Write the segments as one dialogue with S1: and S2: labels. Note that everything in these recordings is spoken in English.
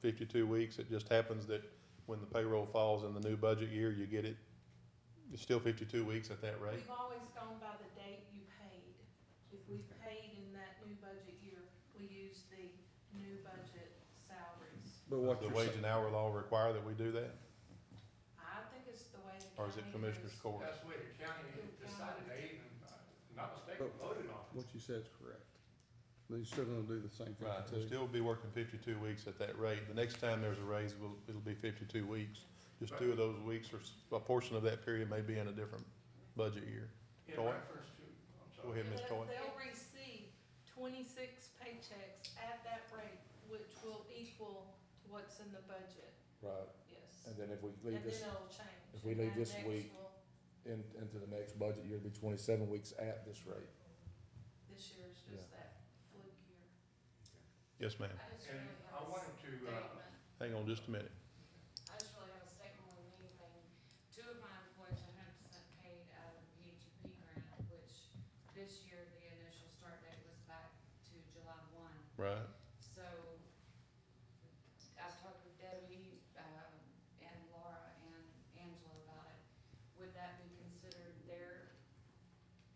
S1: fifty-two weeks. It just happens that when the payroll falls in the new budget year, you get it, it's still fifty-two weeks at that rate.
S2: We've always gone by the date you paid. If we paid in that new budget year, we use the new budget salaries.
S3: But
S1: Does
S3: what
S1: the
S3: you're
S1: wage
S3: saying,
S1: and hour law require that we do that,
S2: I think it's the way the
S1: or is it
S2: county
S1: Commissioner's
S2: does-
S1: Court?
S4: That's what the county decided, they even, uh, if I'm not mistaken, voted on.
S3: what you said is correct. They're still gonna do the same
S1: Right,
S3: thing too.
S1: we'll still be working fifty-two weeks at that rate. The next time there's a raise, will, it'll be fifty-two weeks. Just two of those weeks or s- a portion of that period may be in a different budget year.
S4: In
S1: Go on.
S4: reference to, I'm
S1: Go
S4: sorry.
S1: ahead, Ms. Toy.
S2: They'll- They'll receive twenty-six paychecks at that rate, which will equal to what's in the budget,
S5: Right,
S2: yes.
S5: and then if we
S2: And
S5: leave
S2: then
S5: this,
S2: it'll change.
S5: if we
S2: and
S5: leave
S2: that
S5: this
S2: next
S5: week-
S2: will-
S5: in, into the next budget year, it'll be twenty-seven weeks at this rate.
S2: This year is just that fluke year.
S1: Yes, ma'am.
S6: I just
S4: And
S6: really
S4: I
S6: have a
S4: wanted to, uh,
S6: statement,
S1: Hang on just a minute.
S6: I just really have a statement on leaving. Two of my employees are hundred percent paid out of the PHP grant, which this year, the initial start date was back to July one.
S1: Right,
S6: So I've talked with Debbie, um, and Laura and Angela about it. Would that be considered their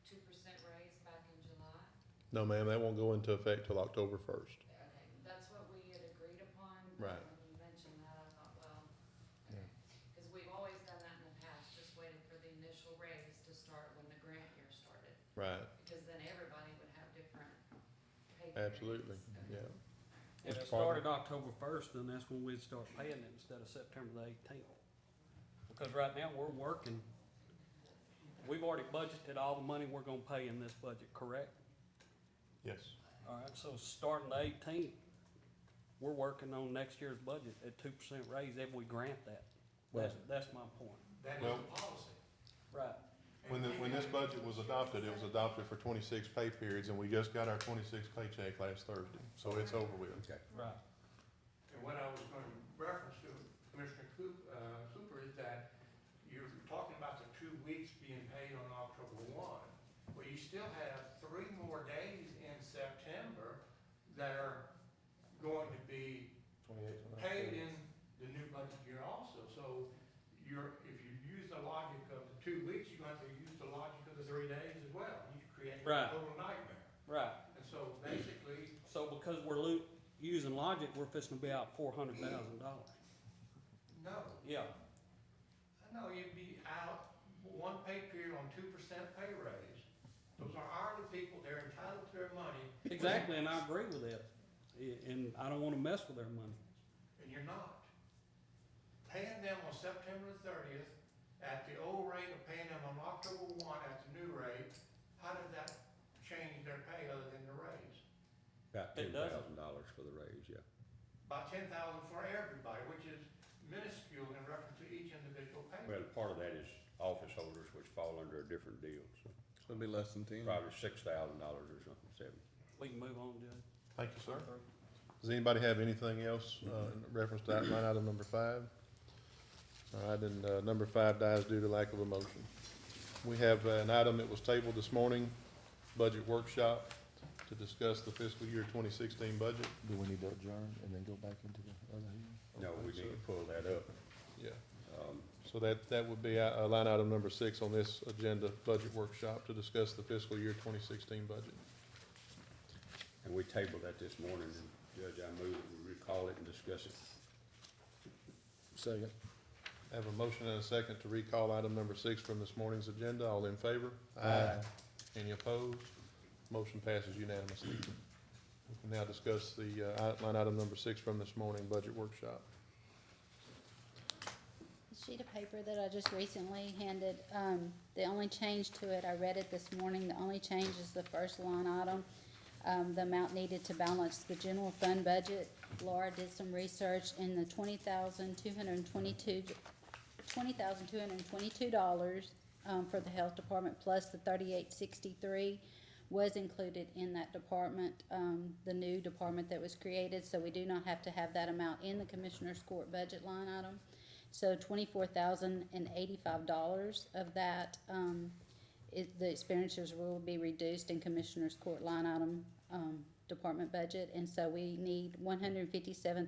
S6: two percent raise back in July?
S1: no, ma'am, that won't go into effect till October first.
S6: Okay, that's what we had agreed upon. but
S1: Right.
S6: When you mentioned that, I thought, well,
S5: Yeah.
S6: okay, because we've always done that in the past, just waited for the initial raise to start when the grant year started,
S1: Right,
S6: because then everybody would have different pay periods.
S1: absolutely, yeah.
S6: Okay.
S7: If it
S1: Mr. Farmer?
S7: started October first, then that's when we'd start paying it instead of September the eighteenth. Because right now, we're working, we've already budgeted all the money we're gonna pay in this budget, correct?
S1: Yes.
S7: All right, so starting the eighteenth, we're working on next year's budget at two percent raise if we grant that. That's, that's my point.
S4: That is
S1: Well-
S4: the policy.
S7: Right.
S1: When the, when this budget was adopted, it was adopted for twenty-six pay periods, and we just got our twenty-six paycheck last Thursday, so it's over with.
S5: Okay.
S7: Right.
S4: And what I was going to reference to Commissioner Coop- uh, Cooper is that you're talking about the two weeks being paid on October one. Well, you still have three more days in September that are going to be
S5: Twenty-eight.
S4: paid in the new budget year also. So you're, if you use the logic of the two weeks, you're going to have to use the logic of the three days as well. You create a
S7: Right.
S4: total nightmare.
S7: Right,
S4: And so basically,
S7: so because we're lo- using logic, we're fixing to be out four hundred thousand dollars.
S4: no,
S7: Yeah,
S4: No, you'd be out one pay period on two percent pay raise. Those are hourly people, they're entitled to their money.
S7: exactly, and I agree with that, I- and I don't wanna mess with their money.
S4: And you're not. Paying them on September thirtieth at the old rate of paying them on October one at the new rate, how did that change their pay other than the raise?
S8: About
S7: It
S8: ten
S7: doesn't.
S8: thousand dollars for the raise, yeah.
S4: By ten thousand for everybody, which is minuscule in reference to each individual payment.
S8: Well, part of that is office holders, which fall under a different deal, so
S3: So it'll be less than ten.
S8: probably six thousand dollars or something, seven.
S7: We can move on, Judge.
S1: Thank you, sir. Does anybody have anything else, uh, in reference to that line item number five? All right, and, uh, number five dies due to lack of a motion. We have uh, an item that was tabled this morning, budget workshop, to discuss the fiscal year twenty sixteen budget.
S5: Do we need to adjourn and then go back into the other hearing? No, we
S1: Okay,
S5: need
S1: so-
S5: to pull that up.
S1: Yeah.
S5: Um,
S1: So that, that would be, uh, line item number six on this agenda, budget workshop, to discuss the fiscal year twenty sixteen budget.
S8: and we tabled that this morning, and Judge, I move, that we recall it and discuss it.
S5: Second.
S1: I Have a motion and a second to recall item number six from this morning's agenda. All in favor?
S5: Aye.
S1: Any opposed? Motion passes unanimously. We can now discuss the, uh, i- line item number six from this morning, budget workshop.
S9: The sheet of paper that I just recently handed, um, the only change to it, I read it this morning, the only change is the first line item. Um, the amount needed to balance the general fund budget. Laura did some research in the twenty thousand two hundred and twenty-two, twenty thousand two hundred and twenty-two dollars, um, for the health department, plus the thirty-eight sixty-three was included in that department, um, the new department that was created, so we do not have to have that amount in the commissioner's court budget line item. So twenty-four thousand and eighty-five dollars of that, um, it, the expenditures will be reduced in Commissioner's Court line item, um, department budget. And so we need one hundred and fifty-seven